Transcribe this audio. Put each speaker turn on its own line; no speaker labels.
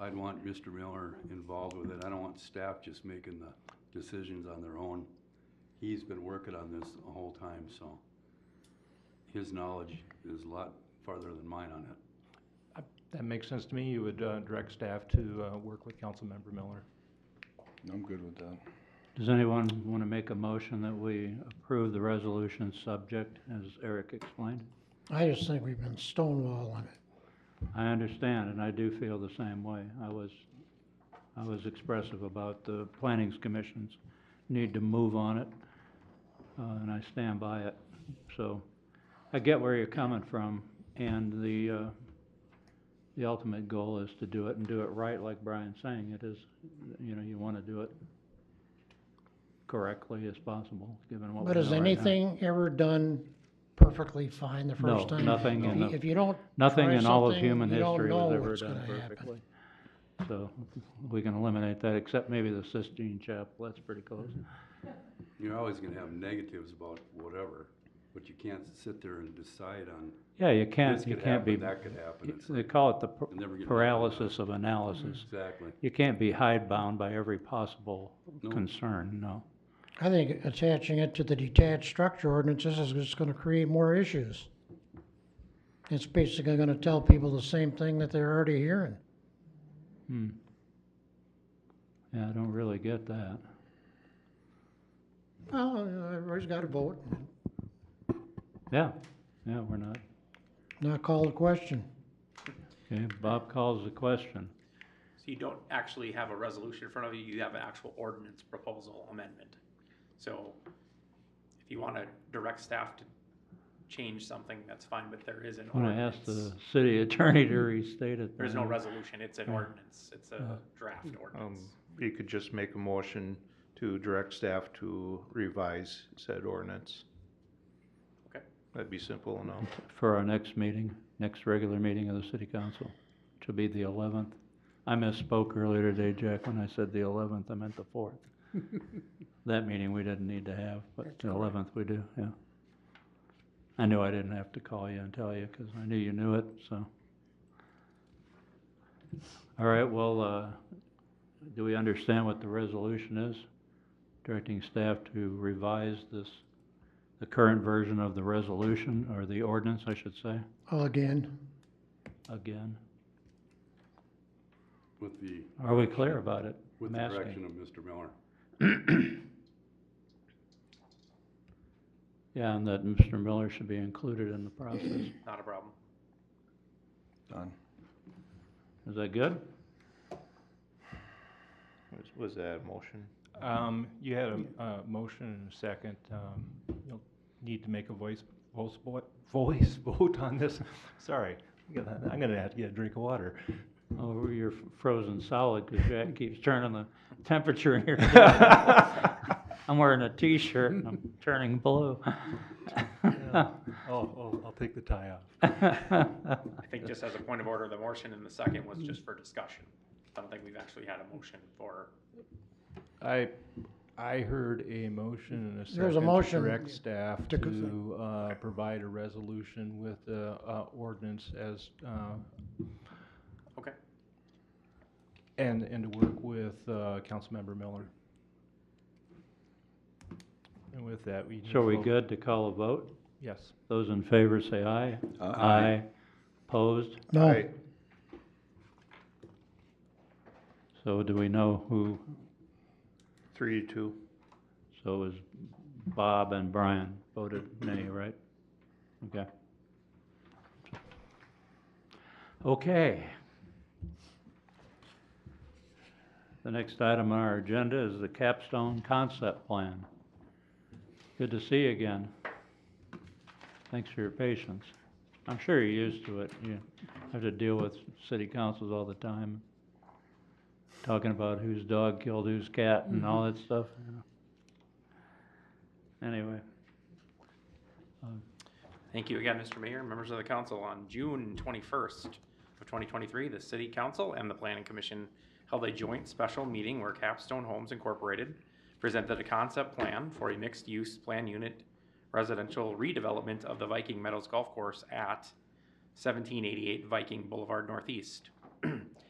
I'd want Mr. Miller involved with it. I don't want staff just making the decisions on their own. He's been working on this the whole time, so his knowledge is a lot farther than mine on it.
That makes sense to me. You would uh, direct staff to uh, work with Councilmember Miller.
I'm good with that.
Does anyone want to make a motion that we approve the resolution subject, as Eric explained?
I just think we've been stonewalling it.
I understand, and I do feel the same way. I was, I was expressive about the planning's commission's need to move on it, uh, and I stand by it. So I get where you're coming from, and the, uh, the ultimate goal is to do it and do it right, like Brian's saying. It is, you know, you want to do it correctly as possible, given what we
But
know
is
right now.
anything ever done perfectly fine the
No,
first time?
nothing
If
in
you-
the-
If you don't,
Nothing
try
in all of
something,
human
you don't
history
know
was ever
what's
done
gonna happen.
perfectly. So we can eliminate that, except maybe the Sistine Chapel, that's pretty close.
Mm-hmm.
You're always gonna have negatives about whatever, but you can't sit there and decide on
Yeah, you can't,
this
you
could
can't be,
happen, that could happen. It's
they
like,
call it the
you'll
par-
never get.
paralysis of
Mm-hmm.
analysis.
Exactly.
You can't be hidebound by every possible
No.
concern, no.
I think attaching it to the detached structure ordinance, this is just gonna create more issues. It's basically gonna tell people the same thing that they're already hearing.
Hmm. Yeah, I don't really get that.
Well, everybody's gotta vote,
Yeah, yeah, we're not.
not call the question.
Okay, Bob calls the question.
So you don't actually have a resolution in front of you, you have an actual ordinance proposal amendment. So if you want to direct staff to change something, that's fine, but there is an
I'm gonna ask
ordinance.
the city attorney to restate it.
There's no
then.
resolution, it's an
Yeah. Uh,
ordinance, it's a draft
Um,
ordinance.
you could just make a motion to direct staff to revise said ordinance.
Okay.
That'd be simple enough.
for our next meeting, next regular meeting of the city council, which will be the eleventh. I misspoke earlier today, Jack, when I said the eleventh, I meant the fourth. That meeting we didn't need to have, but the eleventh we do, yeah. I knew I didn't have to call you and tell you, because I knew you knew it, so. All right, well, uh, do we understand what the resolution is? Directing staff to revise this, the current version of the resolution, or the ordinance, I should say,
Again,
again?
With the,
Are we clear about it?
with the
I'm asking.
direction of Mr. Miller.
Yeah, and that Mr. Miller should be included in the process.
Not a problem.
Done.
Is that good?
Was, was that a motion?
Um, You had a uh, motion and a second. Um, You'll need to make a voice, voice vo- voice vote on this. Sorry, I'm gonna- I'm going to have to get a drink of water.
Oh, you're f- frozen solid because Jack keeps turning the temperature in here. I'm wearing a t-shirt and I'm turning blue.
Oh, oh, I'll take the tie off.
I think just as a point of order, the motion and the second was just for discussion. I don't think we've actually had a motion for,
I, I heard a motion and a
There was a
second to
motion
direct staff
to go-
to, uh, provide a resolution with, uh, uh, ordinance as, uh,
okay,
and, and to work with, uh, Councilmember Miller. And with that, we. need
So are we
vote.
good to call a vote?
Yes.
Those in favor say aye.
Uh,
Opposed?
no,
So do we know who?
Three to two.
So it was Bob and Brian voted nay, right? Okay. Okay. The next item on our agenda is the capstone concept plan. Good to see you again. Thanks for your patience. I'm sure you're used to it. You have to deal with city councils all the time, talking about whose dog killed whose cat and all that stuff. you know. Anyway,
Thank you again, Mr. Mayor, members of the council. On June twenty-first of twenty twenty-three, the city council and the planning commission held a joint special meeting where Capstone Homes Incorporated presented a concept plan for a mixed-use plan unit residential redevelopment of the Viking Meadows Golf Course at seventeen eighty-eight Viking Boulevard Northeast.